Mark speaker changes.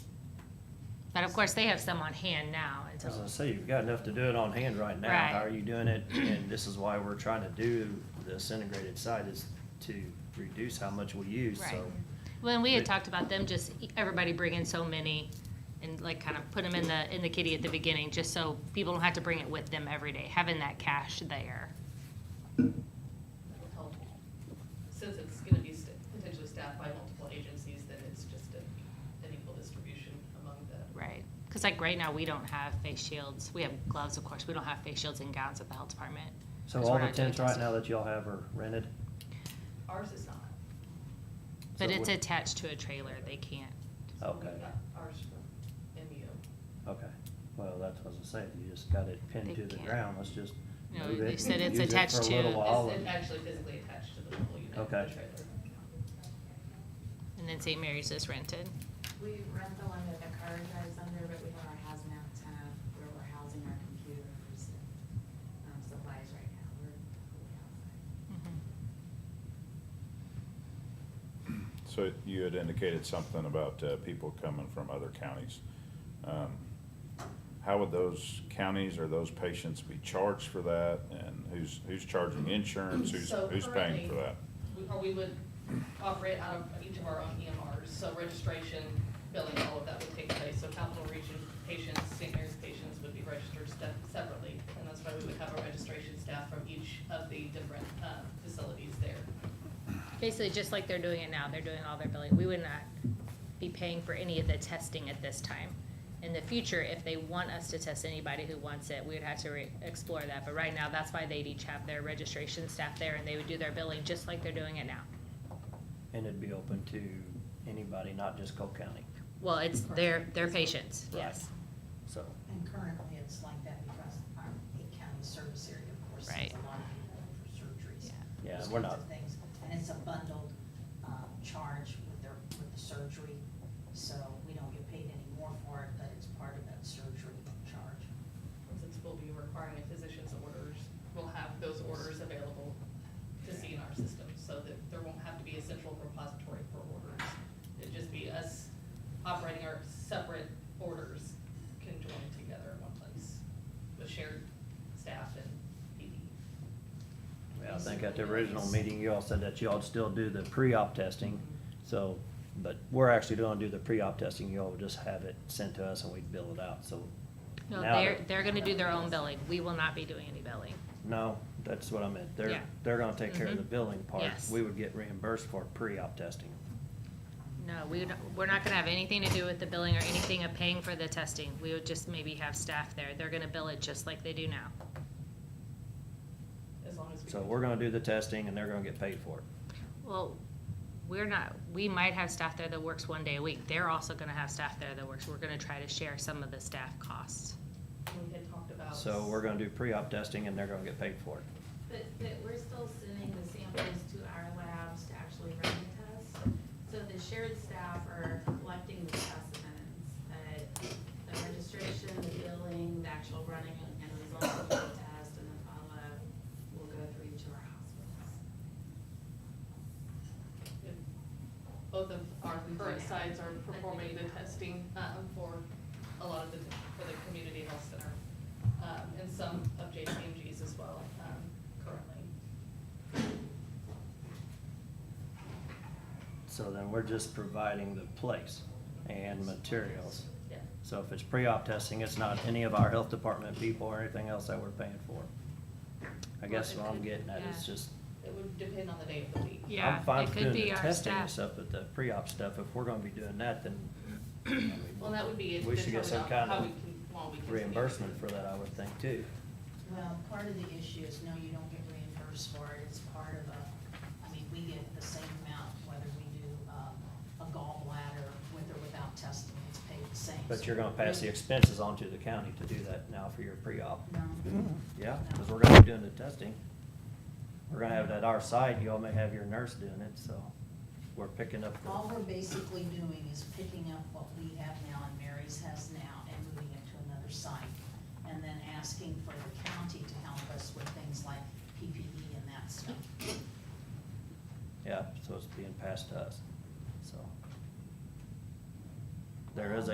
Speaker 1: But of course, they have some on hand now
Speaker 2: I was
Speaker 1: until,
Speaker 2: gonna say, you've got enough to do it on hand right now.
Speaker 1: Right.
Speaker 2: How are you doing it? And this is why we're trying to do this integrated site is to reduce how much we use,
Speaker 1: right.
Speaker 2: so.
Speaker 1: When we had
Speaker 2: But-
Speaker 1: talked about them, just e- everybody bring in so many and like kind of put them in the, in the kitty at the beginning, just so people don't have to bring it with them every day, having that cash there.
Speaker 3: helpful. Since it's gonna be st- potentially staffed by multiple agencies, then it's just a- an equal distribution among the.
Speaker 1: Right. Because like right now, we don't have face shields. We have gloves, of course. We don't have face shields and gowns at the health department.
Speaker 2: So
Speaker 1: 'cause
Speaker 2: all
Speaker 1: we're
Speaker 2: the
Speaker 1: not doing
Speaker 2: tents right
Speaker 1: testing.
Speaker 2: now that y'all have are rented?
Speaker 3: Ours is not.
Speaker 1: But
Speaker 2: So
Speaker 1: it's
Speaker 2: we-
Speaker 1: attached to a trailer. They can't.
Speaker 3: So
Speaker 2: Okay.
Speaker 3: we got Ours from MU.
Speaker 2: Okay, well, that's what I was gonna say, if you just got it
Speaker 1: They
Speaker 2: pinned to the
Speaker 1: can't.
Speaker 2: ground, let's just
Speaker 1: No,
Speaker 2: move it.
Speaker 1: they said
Speaker 2: and
Speaker 1: it's
Speaker 2: use it for a
Speaker 1: attached to-
Speaker 2: little while
Speaker 3: It's
Speaker 2: and-
Speaker 3: actually physically attached to the mobile unit, the
Speaker 2: Okay.
Speaker 3: trailer.
Speaker 1: And then St. Mary's is rented.
Speaker 4: We rent the one that the car drives under, but we have our hazmat tent where we're housing our computers and um, supplies right now. We're fully outside.
Speaker 5: So you had indicated something about uh, people coming from other counties. Um, How would those counties or those patients be charged for that? And who's, who's charging insurance? Who's,
Speaker 3: So
Speaker 5: who's paying
Speaker 3: currently-
Speaker 5: for that?
Speaker 3: We- Or we would offer it out of each of our own EMRs, so registration, billing, all of that would take place. So Capital Region patients, St. Mary's patients would be registered step- separately, and that's why we would have a registration staff from each of the different uh, facilities there.
Speaker 1: Basically, just like they're doing it now, they're doing all their billing. We would not be paying for any of the testing at this time. In the future, if they want us to test anybody who wants it, we would have to re- explore that. But right now, that's why they'd each have their registration staff there and they would do their billing just like they're doing it now.
Speaker 2: And it'd be open to anybody, not just Cole County,
Speaker 1: Well, it's their, their patients,
Speaker 2: Right.
Speaker 1: yes.
Speaker 2: so.
Speaker 6: And currently, it's like that because our Lee County service area, of course,
Speaker 1: Right.
Speaker 6: sends a lot of people in for surgeries.
Speaker 1: Yeah.
Speaker 2: Yeah,
Speaker 6: those
Speaker 2: we're
Speaker 6: kinds
Speaker 2: not-
Speaker 6: of Things, and it's a bundled, um, charge with their, with the surgery, so we don't get paid any more for it, but it's part of that surgery charge.
Speaker 3: Since we'll be requiring a physician's orders, we'll have those orders available to see in our system, so that there won't have to be a central repository for orders. It'd just be us operating our separate orders conjoined together in one place with shared staff and PD.
Speaker 2: Yeah, I think at the original meeting, you all said that y'all'd still do the pre-op testing, so, but we're actually gonna do the pre-op testing, y'all would just have it sent to us and we'd bill it out, so.
Speaker 1: No,
Speaker 2: now
Speaker 1: they're,
Speaker 2: that-
Speaker 1: they're gonna do their own billing. We will not be doing any billing.
Speaker 2: No, that's what I meant, they're,
Speaker 1: Yeah.
Speaker 2: they're gonna take care of the
Speaker 1: Mhm.
Speaker 2: billing part,
Speaker 1: Yes.
Speaker 2: we would get reimbursed for pre-op testing.
Speaker 1: No, we, would- we're not gonna have anything to do with the billing or anything of paying for the testing. We would just maybe have staff there. They're gonna bill it just like they do now.
Speaker 3: As long as we.
Speaker 2: So we're gonna do the testing and they're gonna get paid for
Speaker 1: Oh,
Speaker 2: it.
Speaker 1: Well, we're not, we might have staff there that works one day a week. They're also gonna have staff there that works. We're gonna try to share some of the staff costs.
Speaker 3: We had talked about.
Speaker 2: So we're gonna do pre-op testing and they're gonna get paid for it.
Speaker 4: But, but we're still sending the samples to our labs to actually run the test. So the shared staff are collecting the specimens, but the registration, the billing, the actual running and results of the test and the follow-up will go through each of our hospitals.
Speaker 3: if Both of our current sites are performing the testing um, for a lot of the, for the community health center, um, and some of JCMG's as well um, currently.
Speaker 2: So then we're just providing the place and materials.
Speaker 3: Yeah.
Speaker 2: So if it's pre-op testing, it's not any of our health department people or anything else that we're paying for. I guess what I'm getting at is
Speaker 1: Yeah.
Speaker 2: just,
Speaker 3: It would depend on the day of the week.
Speaker 1: Yeah,
Speaker 2: I'm fine
Speaker 1: it
Speaker 2: with
Speaker 1: could
Speaker 2: doing
Speaker 1: be
Speaker 2: the
Speaker 1: our
Speaker 2: testing
Speaker 1: staff.
Speaker 2: and stuff, but the pre-op stuff, if we're gonna be doing that, then. I mean,
Speaker 3: Well, that would be
Speaker 2: We should get
Speaker 3: determined
Speaker 2: some
Speaker 3: on
Speaker 2: kind
Speaker 3: how
Speaker 2: of
Speaker 3: we can, well, we can.
Speaker 2: reimbursement for that, I would think, too.
Speaker 6: Well, part of the issue is, no, you don't get reimbursed for it, it's part of a, I mean, we get the same amount whether we do, um, a gallbladder with or without testing, it's paid the same.
Speaker 2: But you're gonna pass the expenses on to the county to do that now for your pre-op.
Speaker 6: No.
Speaker 2: Yeah, because
Speaker 6: No.
Speaker 2: we're gonna be doing the testing. We're gonna have it at our site, you all may have your nurse doing it, so we're picking up. the-
Speaker 6: All we're basically doing is picking up what we have E